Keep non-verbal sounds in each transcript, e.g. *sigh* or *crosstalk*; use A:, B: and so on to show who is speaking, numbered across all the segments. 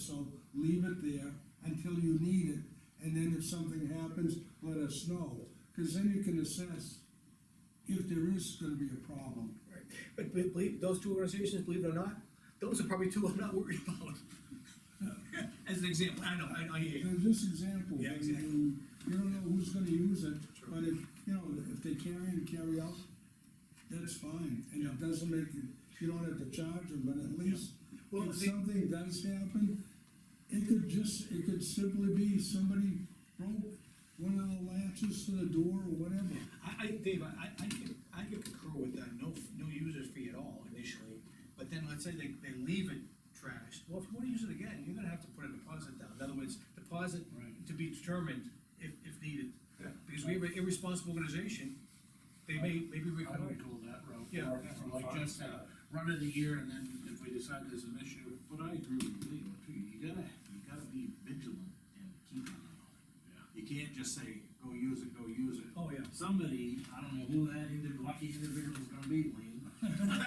A: so leave it there until you need it, and then if something happens, let us know. Cause then you can assess if there is gonna be a problem.
B: Right. But be- believe, those two organizations, believe it or not, those are probably two I'm not worried about. *laughs* As an example, I know, I, I hear you.
A: There's this example,
B: Yeah,
A: I
B: exactly.
A: mean, you don't know who's gonna use it,
B: True.
A: but if, you know, if they carry and carry out, that's fine, and it doesn't make, it- you don't have to charge them, but at least,
B: Well,
A: if
B: the-
A: something does happen, it could just, it could simply be somebody broke one of the latches to the door or whatever.
B: I, I, Dave, I, I- I could, I could concur with that, no, no user fee at all initially, but then let's say they, they leave it trashed, well, if you wanna use it again, you're gonna have to put a deposit down, in other words, deposit
C: Right.
B: to be determined if, if needed.
C: Yeah.
B: Because we have an irresponsible organization, they may, maybe we.
C: I would go that route.
B: Yeah.
C: Or- or Like just
D: uh,
C: a run of the year, and then if we decide there's an issue,
D: But I agree with Leo too, you gotta, you gotta be vigilant and keep an eye on
C: yeah.
D: it. You can't just say, go use it, go use it.
B: Oh, yeah.
D: Somebody, I don't know who that individual, lucky individual is gonna be, Lean.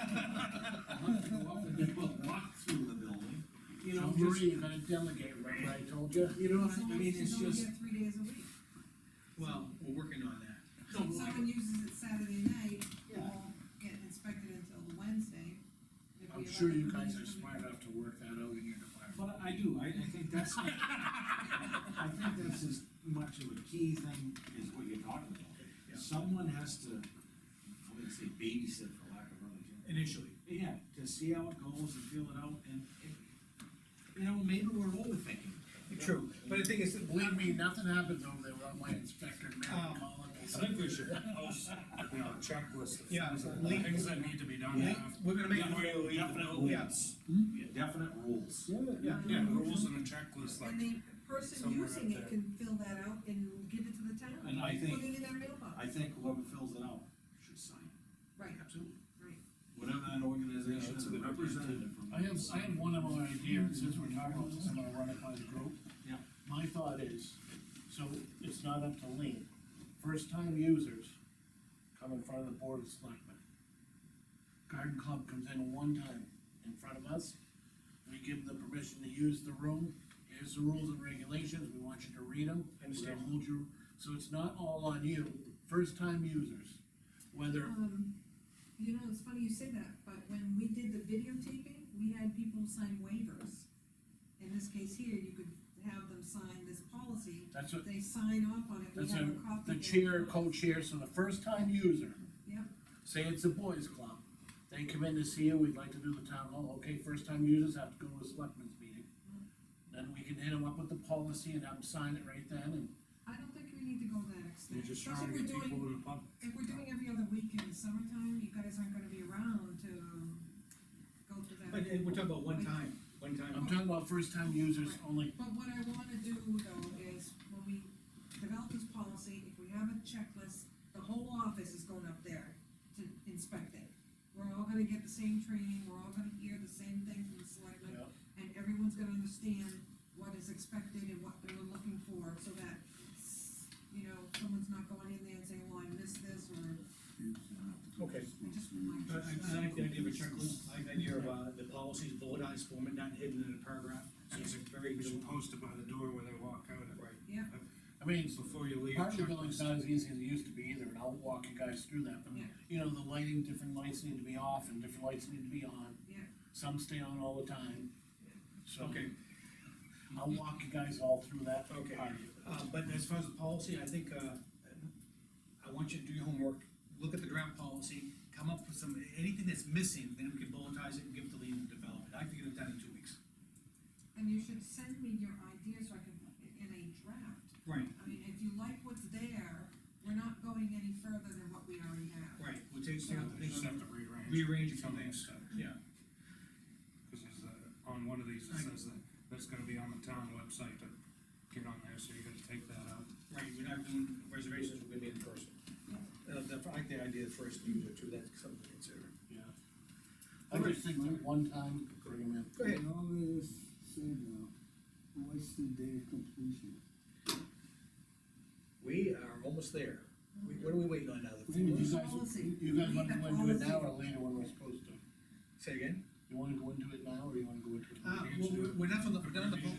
D: I'll have to go up and do a walk through the building, you know,
C: So Marie,
D: just,
C: you're gonna delegate, remember I told you?
D: you know what
E: It's
D: I
E: only-
D: mean, it's
E: only
D: just.
E: there Three days a week.
B: Well, we're working on that,
D: No,
E: If
D: like-
E: someone uses it Saturday night, it
D: Yeah.
E: won't get inspected until Wednesday. If we
C: I'm
E: allow
C: sure you
E: them to
C: guys
E: use
C: are
E: it.
C: smart enough to work that out in your department.
D: But I do, I, I think that's, not- I think that's as much of a key thing is what you're talking
B: Yeah.
D: about. Someone has to, uh, I'm gonna say babysit for lack of a better term.
B: initially.
D: Yeah, to see how it goes and feel it out and, it- you know, maybe we're overthinking. it.
B: True, but the thing is, believe
C: Believe me, nothing happens over there without my inspector, man,
B: Oh.
C: calling me.
F: Um, I think we should post, you know, a checklist of
B: Yeah,
F: things that-
B: link-
F: things that need to be done.
B: Link- we're gonna make-
F: Definitely,
D: Definite
B: Yeah.
D: rules. Yeah, Definite rules.
B: Yeah.
F: Yeah, rules and a checklist,
E: Um, And
F: like,
E: the person
F: somewhere
E: using
F: out there.
E: it can fill that out and give it to the town.
D: And I think-
E: Put it in their mailbox.
D: I think whoever fills it out should sign it.
E: Right,
B: Absolutely.
E: right.
D: Whatever that
F: Yeah,
D: organization is
F: that's a good idea.
D: represented from.
C: I have, I have one other idea, and since we're talking about this, I'm gonna run it by the group.
D: Yeah.
C: My thought is, so it's not up to Lean, first time users come in front of the board of selectmen. Garden club comes in one time in front of us, we give them the permission to use the room, here's the rules and regulations, we want you to read them.
B: Understand.
C: We'll hold you, so it's not all on you, first time users, whether
E: Um, you know, it's funny you say that, but when we did the videotaping, we had people sign waivers. In this case here, you could have them sign this policy,
C: That's what,
E: they sign off on it, we
C: that's
E: have
C: a,
E: a copy.
C: the
E: of it.
C: chair, co-chair, so the first time user.
E: Yep.
C: Say it's a boys' club, they come in to see you, we'd like to do the town hall, okay, first time users have to go to a selectmen's meeting. Then we can hit them up with the policy and have them sign it right then,
E: I don't think we need to go that extent.
F: you're just
E: Especially
F: trying to
E: if
F: get
E: we're doing-
F: people in the pub.
E: If we're doing every other week in the summertime, you guys aren't gonna be around to um, go through that.
B: But uh, we're talking about one time, one
C: and
B: time.
C: I'm talking about first time users only,
E: But what I wanna do though is, when we develop this policy, if we have a checklist, the whole office is going up there to inspect it. We're all gonna get the same training, we're all gonna hear the same thing from the selectmen,
C: Yeah.
E: and everyone's gonna understand what is expected and what they're looking for, so that, you know, someone's not going in there and saying, well, I missed this, or
B: Okay.
E: I just want
B: I, I I like the idea of a checklist, I like the idea of, uh, the policies bulletized form and not hidden in a paragraph, so it's a very.
F: We should post it by the door when they walk out.
B: Right.
E: Yeah.
C: I mean,
F: Before you leave.
C: part of the building's
F: checklist.
C: not as easy as it used to be either, and I'll walk you guys through that, but,
E: Yeah.
C: you know, the lighting, different lights need to be off, and different lights need to be on.
E: Yeah.
C: Some stay on all the time, so.
B: Okay,
C: I'll walk you guys all through that.
B: Okay.
C: part.
B: uh, but as far as the policy, I think, uh, I want you to do your homework, look at the draft policy, come up with some, anything that's missing, then we can bulletize it and give it to Lean and develop it, I can get it done in two weeks.
E: And you should send me your ideas so I can put it in a draft.
B: Right.
E: I mean, if you like what's there, we're not going any further than what we already have.
B: Right, we'll take,
E: Yeah,
F: They just have to rearrange,
B: rearrange a few
F: Some
B: things,
F: stuff.
B: yeah,
F: because there's, uh, on one of these, it
B: I-
F: says that, that's gonna be on the town website to get on there, so you gotta take that out.
B: right, we're not doing reservations, we're gonna be in person. Uh, the, I like the idea of first user too, that's something to consider.
C: Yeah. I just think that one time, bring 'em in.
B: Go ahead.
A: And all this said now, what's the date of completion?
B: We are almost there. We- What are we waiting on now? The-
C: You guys,
E: Policy.
C: you guys want to do it now
E: Policy.
C: or later when we're supposed to?
B: Say again?
G: You wanna go into it now, or you wanna go into it?
C: Uh, well, Uh, we're- we're not on the, we're not on the, po-